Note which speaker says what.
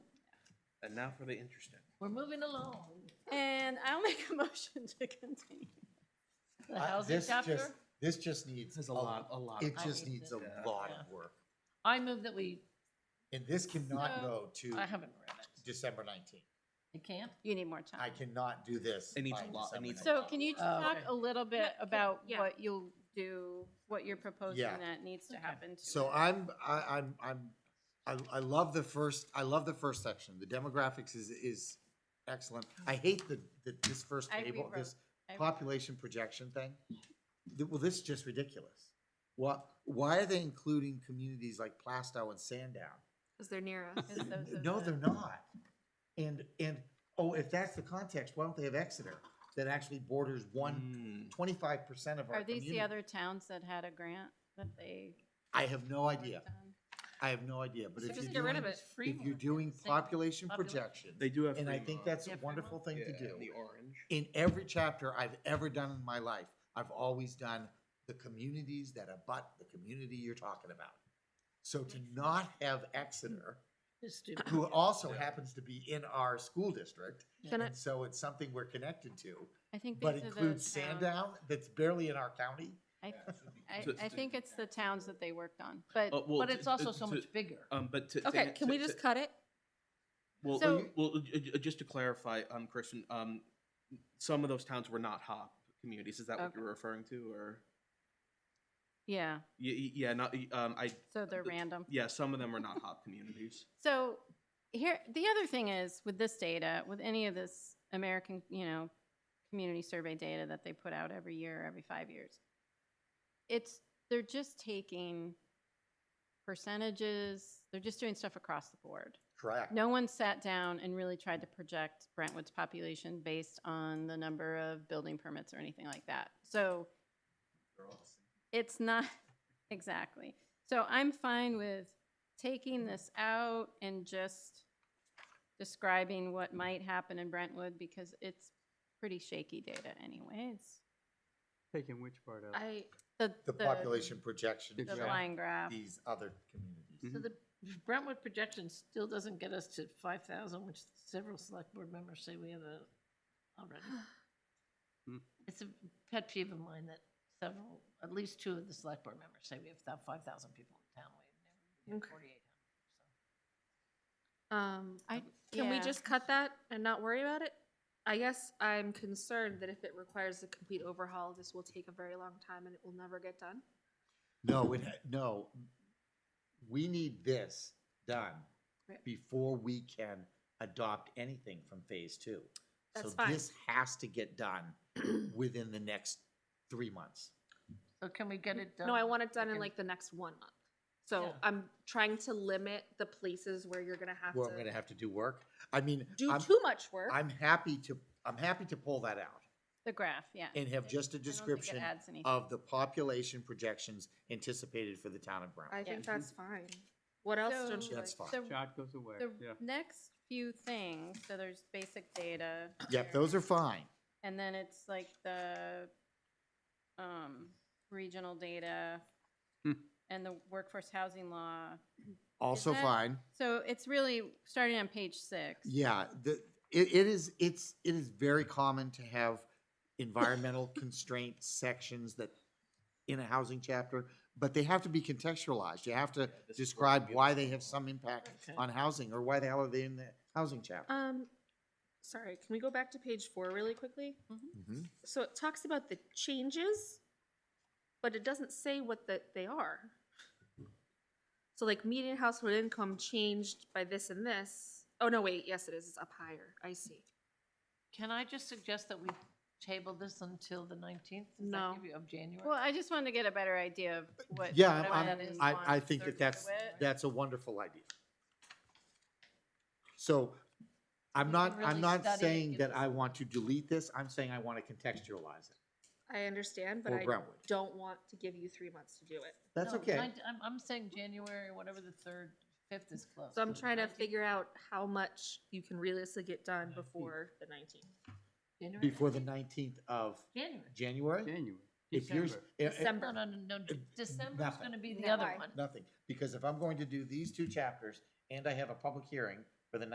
Speaker 1: And now for the interesting.
Speaker 2: We're moving along.
Speaker 3: And I'll make a motion to continue.
Speaker 2: The
Speaker 4: I-
Speaker 2: housing
Speaker 4: this just-
Speaker 2: chapter?
Speaker 4: This just needs.
Speaker 1: There's a lot, a lot.
Speaker 4: It
Speaker 2: I
Speaker 4: just
Speaker 2: need
Speaker 4: needs
Speaker 2: to-
Speaker 4: a
Speaker 1: Yeah.
Speaker 4: lot
Speaker 2: Yeah.
Speaker 4: of work.
Speaker 2: I move that we,
Speaker 4: And this cannot
Speaker 3: So-
Speaker 4: go to
Speaker 2: I haven't read it.
Speaker 4: December nineteenth.
Speaker 2: It can't?
Speaker 3: You need more
Speaker 4: I
Speaker 3: time.
Speaker 4: cannot do this.
Speaker 1: It needs
Speaker 4: by
Speaker 1: a lot- it
Speaker 4: December
Speaker 1: needs a
Speaker 4: 19th.
Speaker 3: So can you just
Speaker 2: Oh,
Speaker 3: talk
Speaker 2: okay.
Speaker 3: a little bit
Speaker 5: can-
Speaker 3: about
Speaker 5: yeah.
Speaker 3: what you'll do, what you're proposing
Speaker 4: Yeah.
Speaker 3: that needs to
Speaker 2: Okay.
Speaker 3: happen to
Speaker 4: So
Speaker 3: it?
Speaker 4: I'm, I, I'm, I'm, I, I love the first, I love the first section. The demographics is, is excellent. I hate the, the, this first
Speaker 3: I
Speaker 4: table, this
Speaker 3: I-
Speaker 4: population projection thing. Th- Well, this is just ridiculous. What, why are they including communities like Plastow and Sandown?
Speaker 5: Because they're near us.
Speaker 3: Because those are
Speaker 4: No,
Speaker 3: the-
Speaker 4: they're not. And, and, oh, if that's the context, why don't they have Exeter that actually borders one,
Speaker 1: Mm,
Speaker 4: twenty-five percent of our
Speaker 3: Are these
Speaker 4: community?
Speaker 3: the other towns that had a grant that they?
Speaker 4: I have no
Speaker 3: worked
Speaker 4: idea.
Speaker 3: on?
Speaker 4: I have no idea, but if
Speaker 5: Just
Speaker 4: you're
Speaker 5: get rid
Speaker 4: doing,
Speaker 5: of it.
Speaker 4: if you're doing population
Speaker 2: population.
Speaker 4: projection,
Speaker 1: They do have.
Speaker 4: and I
Speaker 1: Fremont.
Speaker 4: think that's
Speaker 2: Yeah,
Speaker 4: a
Speaker 2: Fremont.
Speaker 4: wonderful thing to
Speaker 1: Yeah,
Speaker 4: do.
Speaker 1: The orange.
Speaker 4: In every chapter I've ever done in my life, I've always done the communities that abut the community you're talking about. So to not have Exeter,
Speaker 2: It's stupid.
Speaker 4: who also
Speaker 1: Yeah.
Speaker 4: happens to be in our school district,
Speaker 5: Can I-
Speaker 4: And so it's something we're connected to,
Speaker 3: I think
Speaker 4: but
Speaker 3: these are the
Speaker 4: includes
Speaker 3: towns.
Speaker 4: Sandown, that's barely in our county.
Speaker 3: I, I,
Speaker 1: So-
Speaker 3: I think it's the towns that they worked on, but
Speaker 4: Oh.
Speaker 1: Uh, well,
Speaker 2: But
Speaker 1: to-
Speaker 2: it's also
Speaker 1: to-
Speaker 2: so
Speaker 1: to-
Speaker 2: much bigger.
Speaker 1: Um, but to. to
Speaker 5: Okay,
Speaker 1: an-
Speaker 5: can
Speaker 1: to-
Speaker 5: we
Speaker 1: to-
Speaker 5: just cut it?
Speaker 1: Well,
Speaker 3: So-
Speaker 1: uh, well, uh, uh, just to clarify, um, Kristen, um, some of those towns were not hop communities. Is that what
Speaker 3: Okay.
Speaker 1: you were referring to or?
Speaker 3: yeah,
Speaker 1: Yeah, yeah, not, y- um, I,
Speaker 3: so they're
Speaker 1: The-
Speaker 3: random.
Speaker 1: yeah, some of them are not hop communities.
Speaker 3: So here, the other thing is with this data, with any of this American, you know, community survey data that they put out every year, every five years, it's, they're just taking percentages, they're just doing stuff across the board.
Speaker 4: Correct.
Speaker 3: No one sat down and really tried to project Brentwood's population based on the number of building permits or anything like that. So it's not, exactly. So I'm fine with taking this out and just describing what might happen in Brentwood because it's pretty shaky data anyways.
Speaker 6: Taking which part out?
Speaker 3: I, the.
Speaker 4: The population projection
Speaker 3: The
Speaker 6: Yeah.
Speaker 4: showing
Speaker 3: line graph.
Speaker 4: these other communities.
Speaker 2: So
Speaker 1: Mm-hmm.
Speaker 2: the Brentwood projection still doesn't get us to five thousand, which several select board members say we have a, already.
Speaker 6: Hmm.
Speaker 2: It's a pet peeve of mine that several, at least two of the select board members say we have about five thousand people in town. We have never, forty-eight hundred,
Speaker 5: Um,
Speaker 3: I-
Speaker 5: can we
Speaker 3: yeah.
Speaker 5: just cut that and not worry about it? I guess I'm concerned that if it requires a complete overhaul, this will take a very long time and it will never get done.
Speaker 4: No, it, ha- no, we need this done
Speaker 5: Right.
Speaker 4: before we can adopt anything from phase two. So
Speaker 5: That's fine.
Speaker 4: this has to get done within the next three months.
Speaker 2: so. So can we get it done?
Speaker 5: No, I want it done in
Speaker 2: Okay.
Speaker 5: like the next one month. So
Speaker 2: Yeah.
Speaker 5: I'm trying to limit the places where you're gonna have
Speaker 4: Where I'm gonna
Speaker 5: to
Speaker 4: have to do work. I mean,
Speaker 5: do
Speaker 4: I'm,
Speaker 5: too much work.
Speaker 4: I'm happy to, I'm happy to pull that out
Speaker 3: The graph, yeah.
Speaker 4: and have just a
Speaker 3: I don't think it
Speaker 4: description
Speaker 3: adds anything.
Speaker 4: of the population projections anticipated for the town of Brown.
Speaker 5: I
Speaker 2: Yeah.
Speaker 5: think that's fine. What else don't
Speaker 3: So-
Speaker 5: you like?
Speaker 4: That's fine.
Speaker 3: So
Speaker 6: Shot goes away,
Speaker 3: The
Speaker 6: yeah.
Speaker 3: next few things, so there's basic data.
Speaker 4: Yep, those are fine.
Speaker 3: And then it's like the, um, regional data
Speaker 6: Hmm.
Speaker 3: and the workforce housing law.
Speaker 4: Also
Speaker 3: that-
Speaker 4: fine.
Speaker 3: So it's really starting on page six.
Speaker 4: Yeah, the, it, it is, it's, it is very common to have environmental constraint sections that, in a housing chapter, but they have to be contextualized. You have to
Speaker 1: this is where
Speaker 4: describe
Speaker 1: we
Speaker 4: why
Speaker 1: have
Speaker 4: they
Speaker 1: to
Speaker 4: have
Speaker 1: go.
Speaker 4: some impact
Speaker 2: Okay.
Speaker 4: on housing, or why the hell are they in the housing chapter?
Speaker 5: Um, sorry, can we go back to page four really quickly?
Speaker 4: Mhm.
Speaker 5: So it talks about the changes, but it doesn't say what the, they are. So like median household income changed by this and this. Oh, no, wait, yes, it is, it's up higher, I see.
Speaker 2: Can I just suggest that we table this until the nineteenth?
Speaker 5: No.
Speaker 2: Of January?
Speaker 3: Well, I just wanted to get a better idea of what.
Speaker 4: Yeah,
Speaker 3: what
Speaker 4: I'm-
Speaker 3: everyone is
Speaker 4: I, I
Speaker 3: wanting
Speaker 4: think
Speaker 3: to
Speaker 4: that that's,
Speaker 3: do it.
Speaker 4: that's a wonderful idea. So, I'm
Speaker 2: We
Speaker 4: not,
Speaker 2: can really
Speaker 4: I'm not
Speaker 2: study it,
Speaker 4: saying
Speaker 2: give
Speaker 4: that
Speaker 2: us-
Speaker 4: I want to delete this, I'm saying I want to contextualize it
Speaker 5: I understand, but
Speaker 4: for
Speaker 5: I
Speaker 4: Brentwood.
Speaker 5: don't want to give you three months to do it.
Speaker 4: That's
Speaker 2: No,
Speaker 4: okay.
Speaker 2: nine- I'm, I'm saying January, whatever the third, fifth is close.
Speaker 5: So I'm trying to
Speaker 2: 19th
Speaker 5: figure out how much you can realistically get done before the nineteenth.
Speaker 2: January,
Speaker 4: Before the
Speaker 2: 19th?
Speaker 4: nineteenth of
Speaker 2: January.
Speaker 4: January?
Speaker 6: January,
Speaker 4: If you're,
Speaker 6: December.
Speaker 4: eh, eh,
Speaker 2: December, no, no, no,
Speaker 4: it-
Speaker 2: December's
Speaker 4: nothing.
Speaker 2: gonna be the
Speaker 5: No,
Speaker 2: other
Speaker 5: I-
Speaker 2: one.
Speaker 4: nothing, because if I'm going to do these two chapters and I have a public hearing,